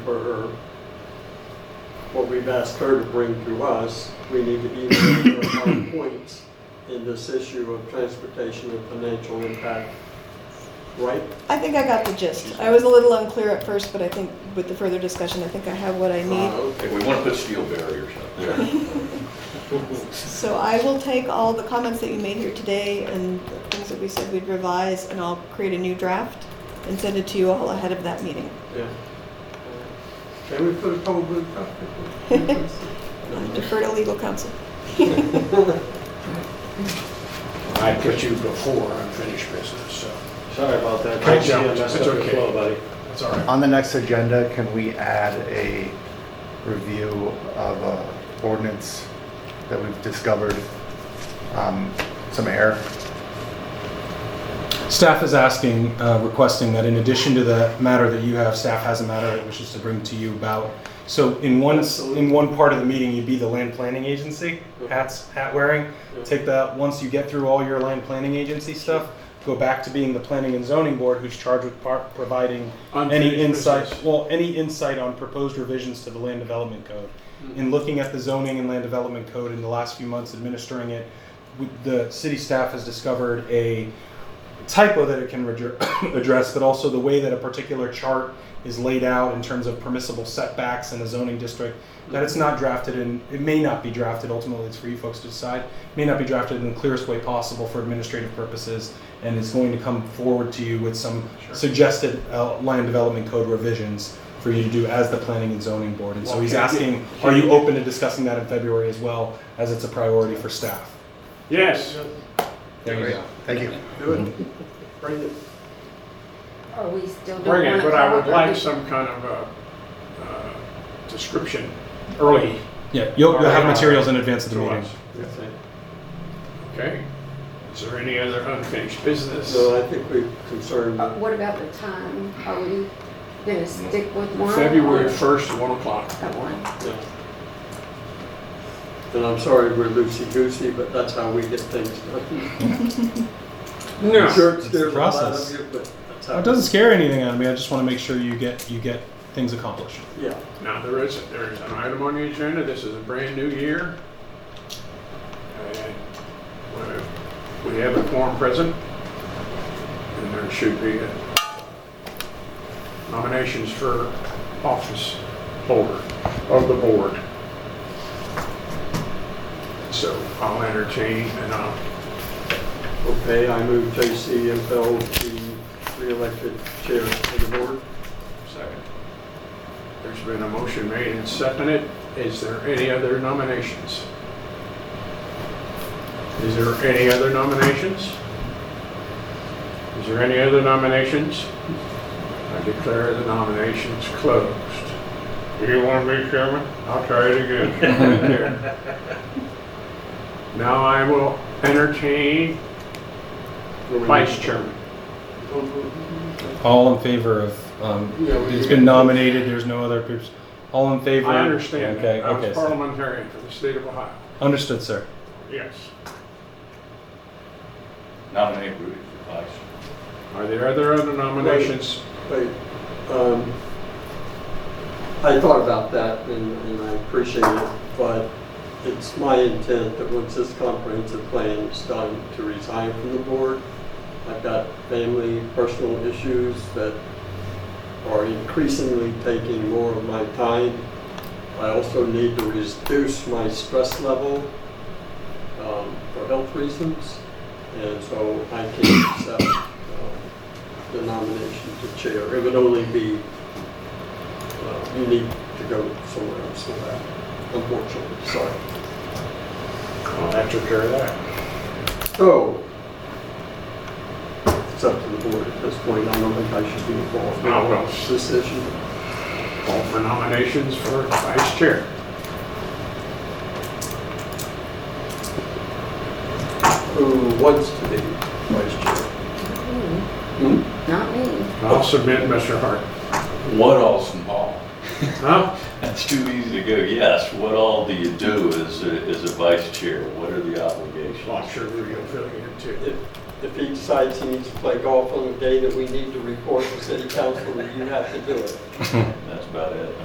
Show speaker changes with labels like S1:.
S1: for her, what we've asked her to bring to us, we need to email her our points in this issue of transportation and financial impact, right?
S2: I think I got the gist. I was a little unclear at first, but I think with the further discussion, I think I have what I
S1: Uh,
S2: need.
S1: okay.
S3: Hey, we want to put steel barriers up there.
S2: So I will take all the comments that you made here today and the things that we said we'd revise, and I'll create a new draft and send it to you all ahead of that meeting.
S1: Yeah. Can we put a poll booth up?
S2: I Defer to legal counsel.
S4: I put you before unfinished business, so
S5: Sorry about that.
S4: I jumped.
S5: Yeah, messed
S4: It's
S5: up your
S4: okay.
S5: flow, buddy.
S4: that's all right.
S6: On the next agenda, can we add a review of a ordinance that we've discovered um, some error?
S7: Staff is asking, uh, requesting that in addition to the matter that you have, staff has a matter it wishes to bring to you about. So in one, in one part of the meeting, you'd be the land planning agency, hats, hat wearing. Take that, once you get through all your land planning agency stuff, go back to being the planning and zoning board who's charged with par- providing
S1: Unfinished
S7: any insight,
S1: business.
S7: well, any insight on proposed revisions to the land development code. In looking at the zoning and land development code in the last few months administering it, we- the city staff has discovered a typo that it can redr- address, but also the way that a particular chart is laid out in terms of permissible setbacks in a zoning district, that it's not drafted in, it may not be drafted, ultimately it's for you folks to decide, may not be drafted in the clearest way possible for administrative purposes, and is going to come forward to you with some suggested uh, land development code revisions for you to do as the planning and zoning board. And so
S1: Well,
S7: he's
S1: can you-
S7: asking,
S1: can
S7: are you
S1: you-
S7: open to discussing that in February as well, as it's a priority for staff?
S5: Yes.
S7: There you go.
S6: Thank you.
S1: Do it. Bring it.
S8: Are we still doing
S4: Bring
S8: one
S4: it, but I would
S8: o'clock? Are
S4: like
S8: we-
S4: some kind of a, uh, description early
S7: Yeah, you'll, you'll have
S4: Alright.
S7: materials in advance of the
S4: to
S7: meeting.
S4: us. Okay? Is there any other unfinished business?
S1: No, I think we're concerned.
S8: uh, What about the time? Are we gonna stick with one?
S4: February
S8: or-
S4: 1st, 1 o'clock.
S8: At one.
S1: Yeah. And I'm sorry we're loosey-goosey, but that's how we get things done.
S4: No.
S1: I'm Sure, it
S7: It's the
S1: scares a lot
S7: process.
S1: of you, but that's
S7: Oh,
S1: how.
S7: It doesn't scare anything out of me. I just want to make sure you get you get things accomplished.
S1: Yeah.
S4: Now, there is, there is an item on the agenda, this is a brand new year. And we- We have a quorum present, and there should be uh, nominations for office holder of the board. So I'll entertain and I'll,
S1: Okay, I move J.C. Impel to be re-elected chair of the board.
S4: second. There's been a motion made and seconded, is there any other nominations? Is there any other nominations? Is there any other nominations? I declare the nominations closed. Do you want to be chairman? I'll try it again. Now I will entertain vice chairman.
S7: All in favor of um,
S1: Yeah, we-
S7: it's been nominated. There's no other groups. All in favor.
S4: I understand
S7: Okay.
S4: that. I was
S7: okay. so-
S4: parliamentarian for the state of Ohio.
S7: Understood, sir.
S4: Yes.
S3: Nominate Rudy for vice.
S4: Are there other other nominations?
S1: Wait, um, I thought about that and, and I appreciate it, but it's my intent that once this comprehensive plan is done, to resign from the board. I've got family, personal issues that are increasingly taking more of my time. I also need to reduce my stress level, um, for health reasons. And so I can't accept, um, the nomination to chair. It would only be, uh, you need to go somewhere else for that, unfortunately, sorry.
S4: I'll have to carry that.
S1: So, it's up to the board at this point, I don't think I should be involved
S4: No,
S1: in
S4: Oh, well-
S1: this decision.
S4: Call for nominations for vice chair.
S1: Who wants to be vice chair?
S8: Hmm,
S1: Hmm?
S8: Not me.
S4: I'll submit Mr. Hart.
S3: What all's involved?
S4: Huh?
S3: That's too easy to go, yes, what all do you do as a, as a vice chair? What are the obligations?
S4: Well, I'm sure Rudy will fill you in too.
S1: If If he decides he needs to play golf on the day that we need to report to city council, you have to do it.
S3: That's about it.